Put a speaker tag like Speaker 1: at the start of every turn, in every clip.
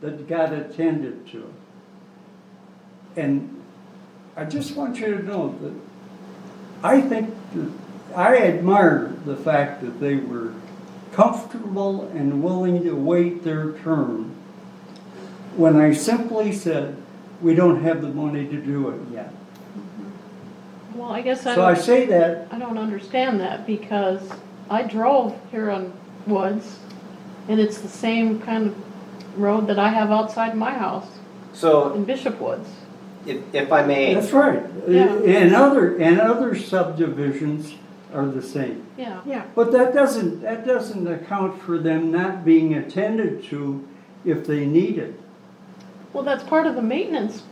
Speaker 1: that got attended to. And I just want you to know that I think, that- I admire the fact that they were comfortable and willing to wait their turn when I simply said, we don't have the money to do it yet.
Speaker 2: Well, I guess I
Speaker 1: So I
Speaker 2: don't,
Speaker 1: say that,
Speaker 2: I don't understand that because I drove here on Woods and it's the same kind of road that I have outside my house
Speaker 3: So,
Speaker 2: in Bishop Woods.
Speaker 3: if, if I may,
Speaker 1: that's right.
Speaker 2: Yeah.
Speaker 1: And other, and other subdivisions are the same.
Speaker 2: Yeah.
Speaker 4: Yeah,
Speaker 1: But that doesn't, that doesn't account for them not being attended to if they need it.
Speaker 2: Well, that's part of the maintenance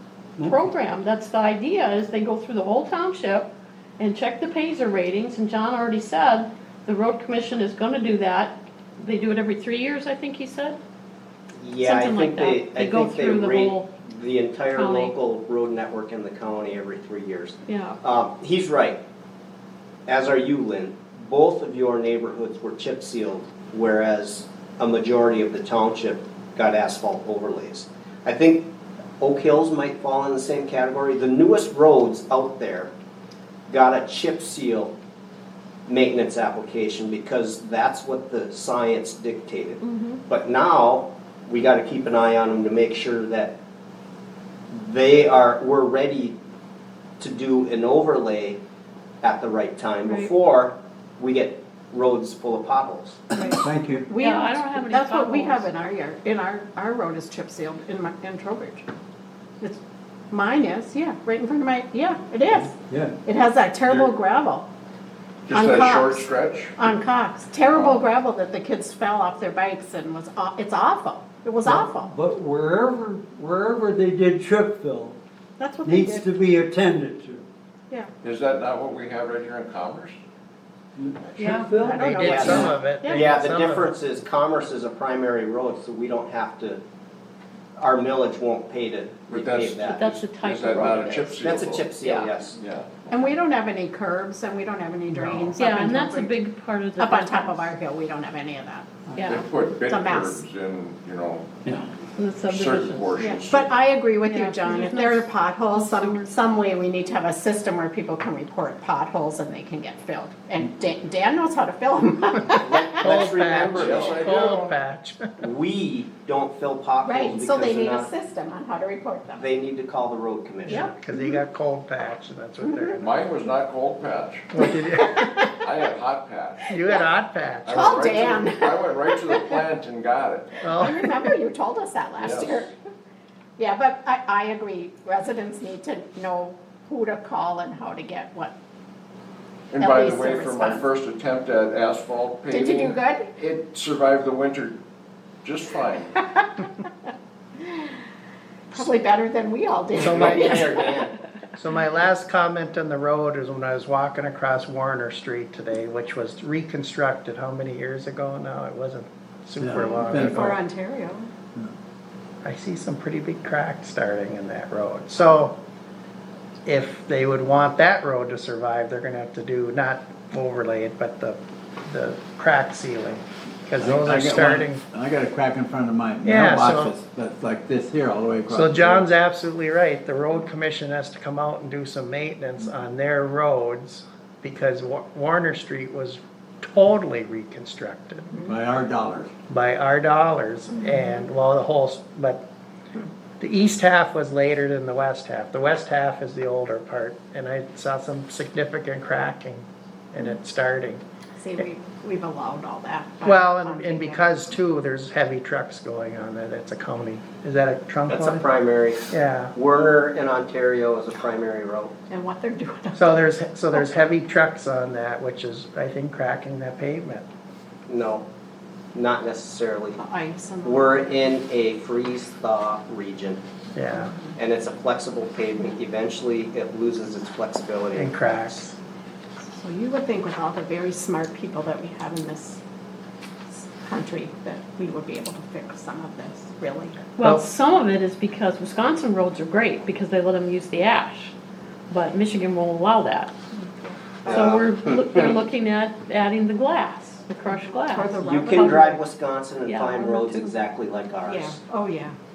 Speaker 2: program. That's the idea, is they go through the whole township and check the Pazer ratings, and John already said, the road commission is gonna do that. They do it every three years, I think he said.
Speaker 3: yeah, I
Speaker 2: Something like
Speaker 3: think they,
Speaker 2: that. They
Speaker 3: I
Speaker 2: go
Speaker 3: think they
Speaker 2: through the
Speaker 3: rate
Speaker 2: whole
Speaker 3: the entire
Speaker 2: county.
Speaker 3: local road network in the county every three years.
Speaker 2: Yeah,
Speaker 3: Um, he's right, as are you, Lynn. Both of your neighborhoods were chip sealed, whereas a majority of the township got asphalt overlays. I think Oak Hills might fall in the same category. The newest roads out there got a chip seal maintenance application because that's what the science dictated.
Speaker 2: Mm-hmm.
Speaker 3: But now, we gotta keep an eye on them to make sure that they are, we're ready to do an overlay at the right time
Speaker 2: Right.
Speaker 3: before we get roads full of potholes.
Speaker 1: Thank you.
Speaker 4: we
Speaker 2: Yeah,
Speaker 4: don't,
Speaker 2: I don't have any
Speaker 4: that's what we have
Speaker 2: potholes.
Speaker 4: in our yard, in our, our road is chip sealed in my, in Trowbridge. It's, mine is, yeah, right in front of my, yeah, it is.
Speaker 1: Yeah.
Speaker 4: It has that terrible
Speaker 5: There-
Speaker 4: gravel
Speaker 5: Just
Speaker 4: On
Speaker 5: that
Speaker 4: Cox.
Speaker 5: short stretch?
Speaker 4: on Cox, terrible gravel that the kids fell off their bikes and was, aw- it's awful. It was awful.
Speaker 1: But wherever, wherever they did chip fill
Speaker 4: That's what they
Speaker 1: needs to
Speaker 4: did,
Speaker 1: be attended to.
Speaker 4: yeah.
Speaker 5: Is that not what we have right here in Commerce?
Speaker 2: yeah.
Speaker 1: Chip fill?
Speaker 4: I don't
Speaker 6: They
Speaker 4: know
Speaker 6: did
Speaker 4: what-
Speaker 6: some of it. They
Speaker 3: Yeah,
Speaker 6: did
Speaker 3: the
Speaker 6: some of it.
Speaker 3: difference is Commerce is a primary road, so we don't have to, our millage won't pay to
Speaker 5: But that's-
Speaker 3: repave that.
Speaker 2: that's the type
Speaker 5: Is
Speaker 2: of
Speaker 5: that
Speaker 2: road
Speaker 5: not
Speaker 2: it
Speaker 5: a chip
Speaker 2: is.
Speaker 5: seal?
Speaker 3: That's a chip seal,
Speaker 4: Yeah.
Speaker 3: yes.
Speaker 5: Yeah.
Speaker 4: And we don't have any curbs and we don't have any drains up
Speaker 2: Yeah,
Speaker 4: in
Speaker 2: and that's a
Speaker 4: Trowbridge.
Speaker 2: big part of the.
Speaker 4: Up on top of our hill, we don't have any of that.
Speaker 5: They
Speaker 2: Yeah,
Speaker 5: put big
Speaker 4: It's a mess.
Speaker 5: curbs in, you know,
Speaker 2: in the
Speaker 5: certain
Speaker 2: subdivisions.
Speaker 4: Yeah,
Speaker 5: portions.
Speaker 4: But I agree with
Speaker 2: Yeah,
Speaker 4: you, John,
Speaker 2: there's
Speaker 4: if there
Speaker 2: no-
Speaker 4: are potholes, some, some way we need to have a system where people can report potholes and they can get filled. And Dan, Dan knows how to fill them.
Speaker 3: Let-
Speaker 6: Cold
Speaker 3: Let's
Speaker 6: patch.
Speaker 3: remember,
Speaker 5: yes, I
Speaker 3: though,
Speaker 5: do.
Speaker 6: Cold patch.
Speaker 3: we don't fill potholes
Speaker 4: Right,
Speaker 3: because
Speaker 4: so they
Speaker 3: they're
Speaker 4: need a
Speaker 3: not,
Speaker 4: system on how to report them.
Speaker 3: they need to call the road commissioner.
Speaker 4: Yep.
Speaker 6: Cause he got cold patch and that's what they're.
Speaker 5: Mine was not cold patch.
Speaker 6: What did you-
Speaker 5: I had hot patch.
Speaker 6: You got hot patch.
Speaker 5: I
Speaker 4: Oh,
Speaker 5: went right to
Speaker 4: Dan.
Speaker 5: the- I went right to the plant and got it.
Speaker 4: I
Speaker 6: Well,
Speaker 4: remember you told us that last
Speaker 5: Yes.
Speaker 4: year. Yeah, but I, I agree, residents need to know who to call and how to get what.
Speaker 5: And
Speaker 4: At
Speaker 5: by
Speaker 4: least
Speaker 5: the way,
Speaker 4: they're
Speaker 5: for my
Speaker 4: responsible.
Speaker 5: first attempt at asphalt paving.
Speaker 4: Did you do good?
Speaker 5: It survived the winter just fine.
Speaker 4: Probably better than we all did.
Speaker 6: So
Speaker 3: Right
Speaker 6: my-
Speaker 3: in there, Dan.
Speaker 6: so my last comment on the road is when I was walking across Warner Street today, which was reconstructed, how many years ago now? It wasn't super
Speaker 1: Yeah,
Speaker 6: long
Speaker 1: been-
Speaker 4: For
Speaker 6: ago.
Speaker 4: Ontario.
Speaker 6: I see some pretty big cracks starting in that road. So if they would want that road to survive, they're gonna have to do, not overlay it, but the, the crack sealing. Cause those
Speaker 7: I
Speaker 6: are
Speaker 7: got one-
Speaker 6: starting.
Speaker 7: I got a crack in front of my
Speaker 6: Yeah, so-
Speaker 7: mailbox that's, that's like this here all the way across.
Speaker 6: So John's absolutely right, the road commission has to come out and do some maintenance on their roads, because Wa- Warner Street was totally reconstructed
Speaker 7: By our dollars.
Speaker 6: by our dollars, and, well, the whole, s- but the east half was later than the west half, the west half is the older part, and I saw some significant cracking in it starting.
Speaker 4: See, we, we've allowed all that. but-
Speaker 6: Well, and, and because too, there's heavy trucks going on there, that's a county, is that a trunk
Speaker 3: That's a
Speaker 6: line?
Speaker 3: primary.
Speaker 6: Yeah.
Speaker 3: Werner in Ontario is a primary road.
Speaker 4: And what they're doing.
Speaker 6: So there's, so there's heavy trucks on that, which is, I think, cracking that pavement.
Speaker 3: No, not necessarily.
Speaker 4: The ice and. the-
Speaker 3: We're in a freeze thaw region
Speaker 6: Yeah,
Speaker 3: and it's a flexible pavement. Eventually, it loses its flexibility.
Speaker 6: and cracks.
Speaker 4: So you would think with all the very smart people that we have in this country, that we would be able to fix some of this, really.
Speaker 2: Well,
Speaker 6: Well-
Speaker 2: some of it is because Wisconsin roads are great because they let them use the ash, but Michigan won't allow that. So
Speaker 3: Yeah.
Speaker 2: we're, look- we're looking at adding the glass, the crushed glass.
Speaker 4: Or the
Speaker 3: You can drive Wisconsin and
Speaker 2: Yeah.
Speaker 3: find roads exactly like ours.
Speaker 4: Yeah, oh, yeah.